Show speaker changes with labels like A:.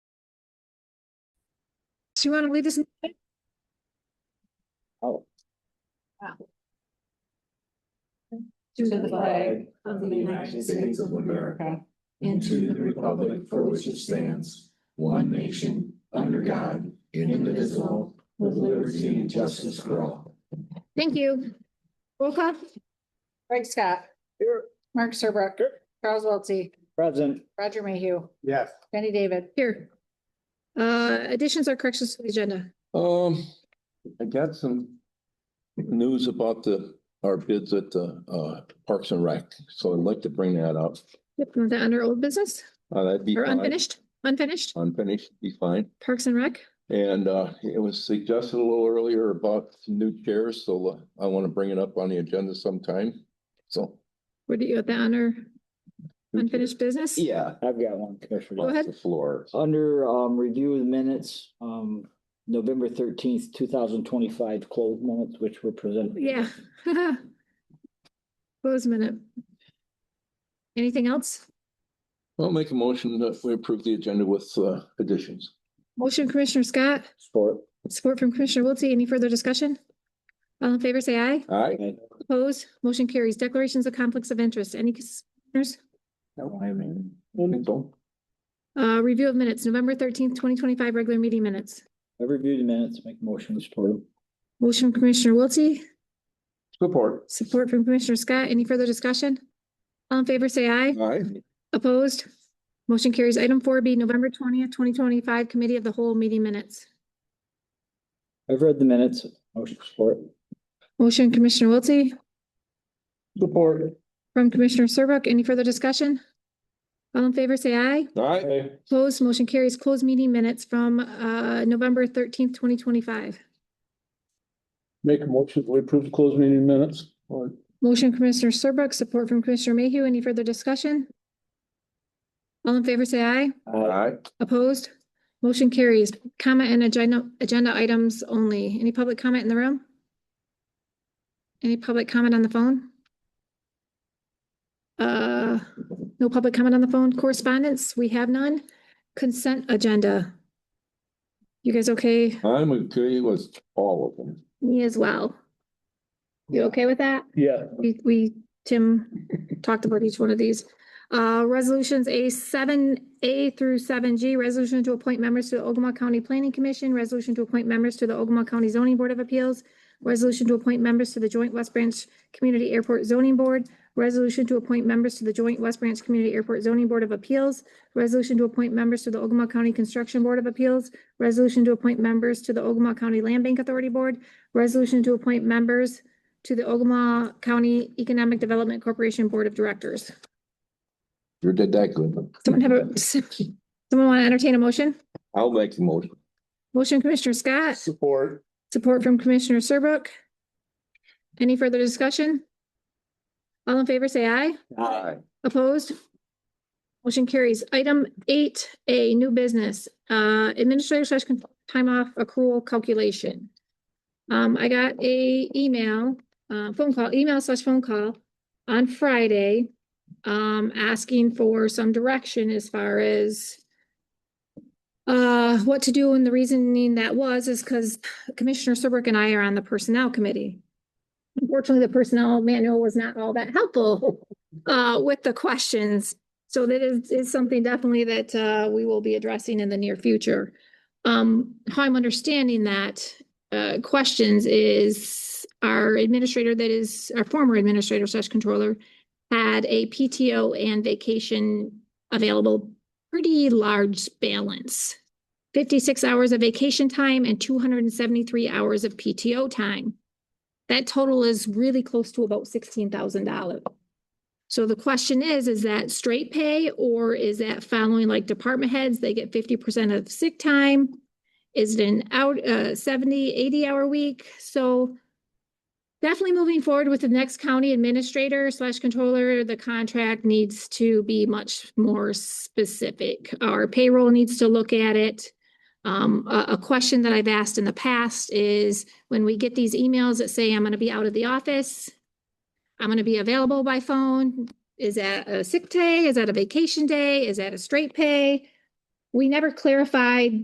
A: Do you want to lead us? in-
B: Oh.
C: To the flag of the United States of America and to the republic for which it stands, one nation, under God, indivisible, with liberty and justice for all.
A: Thank you. Roll call?
D: Craig Scott.
B: Here.
D: Mark Serbrook.
B: Here.
D: Charles Wiltie.
B: Present.
D: Roger Mayhew.
B: Yes.
D: Jenny David.
A: Here. Uh, additions or corrections to the agenda?
C: Um, I got some news about the, our bids at the, uh, Parks and Rec, so I'd like to bring that up.
A: Yep, was that under old business
C: Uh, that'd be
A: or
C: fine.
A: unfinished, unfinished?
C: Unfinished, be fine.
A: Parks and Rec?
C: And, uh, it was suggested a little earlier about some new chairs, so uh, I want to bring it up on the agenda sometime, so.
A: What do you, have that under
C: new chairs.
A: unfinished business?
B: Yeah, I've got one,
A: Go
B: Commissioner.
A: ahead.
C: Off The floor.
B: Under um review of the minutes, um November thirteenth, two thousand twenty-five closed minutes, which were presented.
A: Yeah. Close minute. Anything else?
C: I'll make a motion that we approve the agenda with, uh, additions.
A: Motion Commissioner Scott,
B: Support.
A: support from Commissioner Wiltie. Any further discussion? All in favor, say aye.
C: All right?
B: Okay.
A: Opposed? Motion carries. Declarations of conflicts of interest. Any commissioners? Uh, review of minutes, November thirteenth, twenty twenty-five, regular meeting minutes.
B: I reviewed the minutes, make a motion, to support them.
A: Motion from Commissioner Wiltie,
C: Support.
A: support from Commissioner Scott. Any further discussion? All in favor, say aye.
C: All right.
A: Opposed? Motion carries. Item four B, November twentieth, twenty twenty-five, Committee of the Whole Meeting Minutes.
B: I've read the minutes, motion to support.
A: Motion Commissioner Wiltie,
B: Support.
A: from Commissioner Serbrook. Any further discussion? All in favor, say aye.
C: All right.
A: Opposed? Motion carries. Closed meeting minutes from, uh, November thirteenth, twenty twenty-five.
C: Make a motion to approve the closed meeting minutes.
A: Motion Commissioner Serbrook, support from Commissioner Mayhew. Any further discussion? All in favor, say aye.
C: All
B: Uh,
C: right.
A: Opposed? Motion carries. Comment and agenda, agenda items only. Any public comment in the room? Any public comment on the phone? Uh, no public comment on the phone. Correspondence, we have none. Consent agenda. You guys okay?
C: I'm okay with all of them.
A: Me as well. You
B: Yeah.
A: okay with that?
B: Yeah.
A: We, we, Tim talked about each one of these. Uh, resolutions A seven, A through seven G, resolution to appoint members to the Ogama County Planning Commission, resolution to appoint members to the Ogama County Zoning Board of Appeals, resolution to appoint members to the Joint West Branch Community Airport Zoning Board, resolution to appoint members to the Joint West Branch Community Airport Zoning Board of Appeals, resolution to appoint members to the Ogama County Construction Board of Appeals, resolution to appoint members to the Ogama County Land Bank Authority Board, resolution to appoint members to the Ogama County Economic Development Corporation Board of Directors.
C: You did that good.
A: Someone have a, someone want to entertain a motion?
C: I'll make the motion.
A: Motion Commissioner Scott,
C: Support.
A: support from Commissioner Serbrook. Any further discussion? All in favor, say aye.
C: Aye.
A: Opposed? Motion carries. Item eight A, new business, uh, administrative slash con- time off accrual calculation. Um, I got a email, uh, phone call, email slash phone call on Friday, um, asking for some direction as far as uh, what to do, and the reasoning that was is because Commissioner Serbrook and I are on the Personnel Committee. Unfortunately, the Personnel Manual was not all that helpful uh, with the questions. So that is, is something definitely that, uh, we will be addressing in the near future. Um, how I'm understanding that, uh, questions is our administrator that is, our former administrator slash controller had a PTO and vacation available, pretty large balance. Fifty-six hours of vacation time and two hundred and seventy-three hours of PTO time. That total is really close to about sixteen thousand dollars. So the question is, is that straight pay or is that following like department heads, they get fifty percent of sick time? Is it an out, uh, 70, 80 hour week? So definitely moving forward with the next county administrator slash controller, the contract needs to be much more specific. Our payroll needs to look at it. Um, a, a question that I've asked in the past is when we get these emails that say I'm gonna be out of the office, I'm gonna be available by phone. Is that a sick day? Is that a vacation day? Is that a straight pay? We never clarified